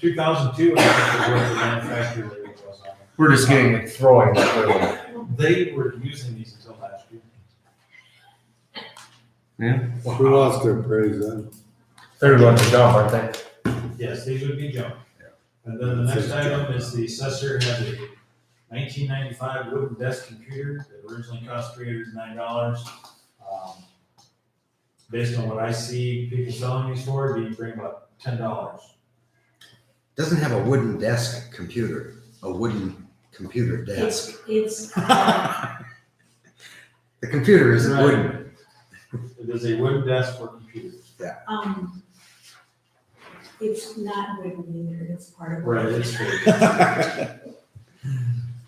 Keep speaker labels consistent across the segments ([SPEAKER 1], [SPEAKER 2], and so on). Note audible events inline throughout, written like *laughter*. [SPEAKER 1] Two thousand two, I think, is where the manufacturer rate was on.
[SPEAKER 2] We're just getting it throwing. it early.
[SPEAKER 1] They were using these until last year.
[SPEAKER 3] Who wants to appraise
[SPEAKER 4] *laughs*
[SPEAKER 3] that?
[SPEAKER 2] They're going to jump, aren't they?
[SPEAKER 1] Yes, these would be junk. And then the next item is the assessor has a nineteen ninety-five wooden desk computer that originally cost three hundred and nine dollars. Um, Based on what I see people selling these for, you bring about ten dollars.
[SPEAKER 5] Doesn't have a wooden desk computer, a wooden computer desk.
[SPEAKER 6] It's, it's, uh,
[SPEAKER 5] The computer isn't wooden.
[SPEAKER 1] It is a wooden desk for computers.
[SPEAKER 6] um, it's not written either, it's part of.
[SPEAKER 1] Right, it's true. *laughs*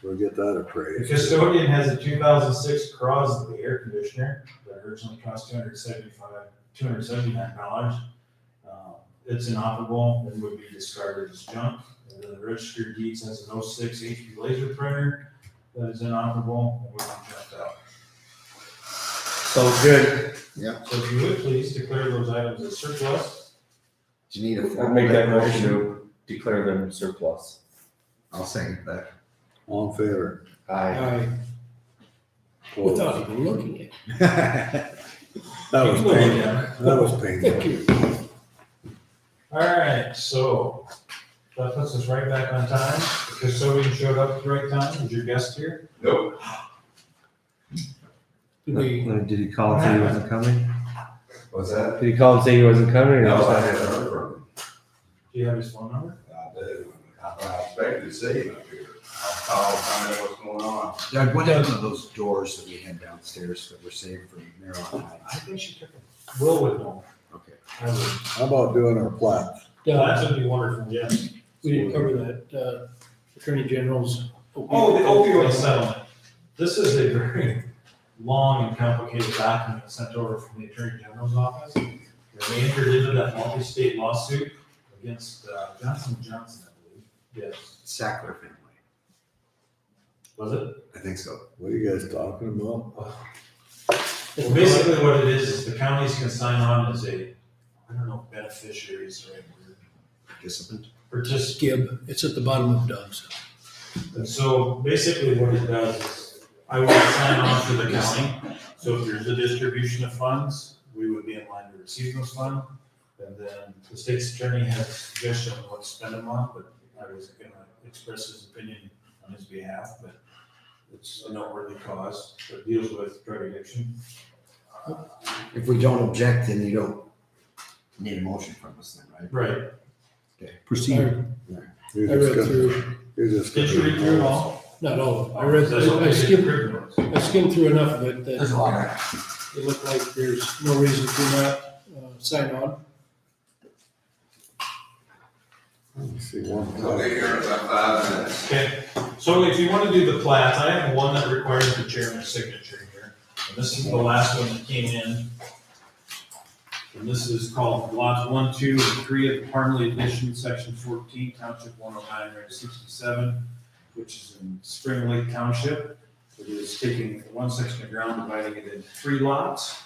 [SPEAKER 3] We'll get that
[SPEAKER 1] The
[SPEAKER 3] appraised.
[SPEAKER 1] custodian has a two thousand six Crosley air conditioner that originally cost two hundred seventy-five, two hundred seventy-nine dollars. Um, It's inoperable and would be discarded as junk. And then the registered deeds has an 06 HP laser printer that is inoperable and would be junked out.
[SPEAKER 2] So good.
[SPEAKER 1] So if you would please declare those items as surplus.
[SPEAKER 5] Do you need a
[SPEAKER 7] I'll
[SPEAKER 5] formal
[SPEAKER 7] make that motion
[SPEAKER 5] declaration?
[SPEAKER 7] to declare them surplus.
[SPEAKER 5] I'll second that.
[SPEAKER 3] All in favor?
[SPEAKER 7] Aye.
[SPEAKER 3] Opposed?
[SPEAKER 4] Without even looking at
[SPEAKER 3] *laughs* That was
[SPEAKER 1] Take a look
[SPEAKER 3] painful.
[SPEAKER 1] at it.
[SPEAKER 3] That was
[SPEAKER 4] it.
[SPEAKER 3] painful.
[SPEAKER 1] All right, so that puts us right back on time. The custodian showed up at the right time. Was your guest here?
[SPEAKER 4] Did we,
[SPEAKER 2] Did he call and say he wasn't coming?
[SPEAKER 7] Was that?
[SPEAKER 2] Did he call and say he wasn't coming? or
[SPEAKER 7] No, I
[SPEAKER 2] not?
[SPEAKER 7] haven't heard from him.
[SPEAKER 1] Do you have his phone number?
[SPEAKER 7] I do. I expected to see him up here. I'll call, find out what's going on.
[SPEAKER 5] Doug, what happened to those doors that we had downstairs that were saved for marijuana?
[SPEAKER 1] I think she took it. Will would know.
[SPEAKER 5] Okay.
[SPEAKER 1] I would.
[SPEAKER 3] How about doing our plat?
[SPEAKER 1] That
[SPEAKER 4] uh,
[SPEAKER 1] would be wonderful, yes.
[SPEAKER 4] we didn't cover that, uh, Attorney General's. opioid-
[SPEAKER 1] Settlement. This is a very long and complicated document sent over from the Attorney General's office. And we entered into that multi-state lawsuit against uh, Johnson and Johnson, I believe. Yes.
[SPEAKER 5] Sackler family.
[SPEAKER 1] Was it?
[SPEAKER 5] I think so.
[SPEAKER 3] What are you guys talking about?
[SPEAKER 1] Well, basically what it is, is the counties can sign on as a, I don't know, beneficiary is the right word.
[SPEAKER 5] Participant.
[SPEAKER 1] Participant
[SPEAKER 4] Gib, it's at the bottom of Doug's.
[SPEAKER 1] And so basically what it does is I would sign on for the county. So if there's a distribution of funds, we would be in line to receive those funds. And then the state's attorney has a suggestion on what to spend them on, but I was gonna express his opinion on his behalf, but it's a noteworthy cause that deals with drug addiction.
[SPEAKER 4] Uh,
[SPEAKER 5] If we don't object, then you don't need a motion from us then, right?
[SPEAKER 1] Right.
[SPEAKER 4] I
[SPEAKER 3] You're
[SPEAKER 4] I read
[SPEAKER 3] just gonna,
[SPEAKER 4] through,
[SPEAKER 3] you're just.
[SPEAKER 1] Did you
[SPEAKER 3] gonna-
[SPEAKER 1] read through it all?
[SPEAKER 4] not all, of it. I read,
[SPEAKER 1] That's what
[SPEAKER 4] I
[SPEAKER 1] they did in
[SPEAKER 4] skimmed,
[SPEAKER 1] Britain.
[SPEAKER 4] I skimmed through enough of it that
[SPEAKER 5] There's a lot of.
[SPEAKER 4] it looked like there's no reason to not, uh, sign on.
[SPEAKER 3] Let's See one.
[SPEAKER 7] I'll be here in about five minutes.
[SPEAKER 1] Okay, so if you want to do the plats, I have one that requires the chairman's signature here. And this is the last one that came in. And this is called lots one, two, and three of the Parmley Edition, section fourteen, township one oh nine, range sixty-seven, which is in Spring Lake Township. It is taking one section of ground, dividing it into three lots.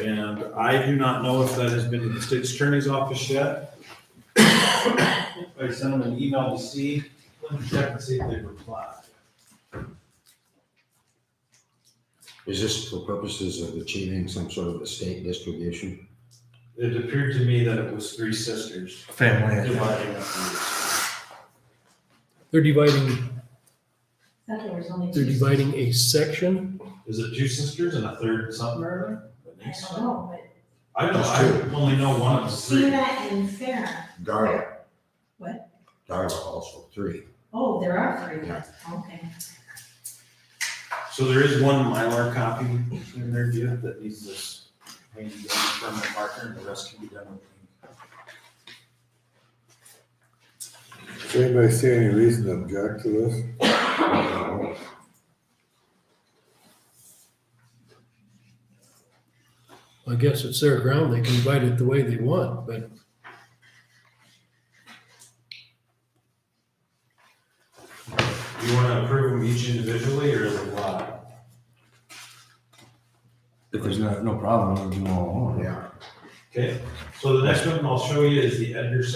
[SPEAKER 1] And I do not know if that has been to the state's attorney's office yet. I sent them an email to see, let me check and see if they replied.
[SPEAKER 5] Is this for purposes of achieving some sort of estate distribution?
[SPEAKER 1] It appeared to me that it was three sisters
[SPEAKER 2] Family.
[SPEAKER 1] dividing up the.
[SPEAKER 4] They're dividing,
[SPEAKER 6] I thought there was only.
[SPEAKER 4] they're
[SPEAKER 6] two-
[SPEAKER 4] dividing a section.
[SPEAKER 1] Is it two sisters and a third something or
[SPEAKER 6] I
[SPEAKER 1] other?
[SPEAKER 6] don't know,
[SPEAKER 1] I don't,
[SPEAKER 5] There's
[SPEAKER 1] I only know one of
[SPEAKER 6] but
[SPEAKER 1] the three.
[SPEAKER 6] Sina and Sarah,
[SPEAKER 5] Darla.
[SPEAKER 6] What?
[SPEAKER 5] Darla also, three.
[SPEAKER 6] oh, there are three,
[SPEAKER 5] Yeah.
[SPEAKER 6] okay.
[SPEAKER 1] So there is one Mylar copy in their view that needs this handy dandy permanent marker and the rest can be done with.
[SPEAKER 3] Does anybody see any reason to object to this?
[SPEAKER 4] I guess it's their ground. They can divide it the way they want, but
[SPEAKER 1] Do you wanna approve them each individually or as a lot?
[SPEAKER 2] If there's no, no problem, we'll do all along.
[SPEAKER 5] Oh, Yeah.
[SPEAKER 1] Okay, so the next one I'll show you is the Edgar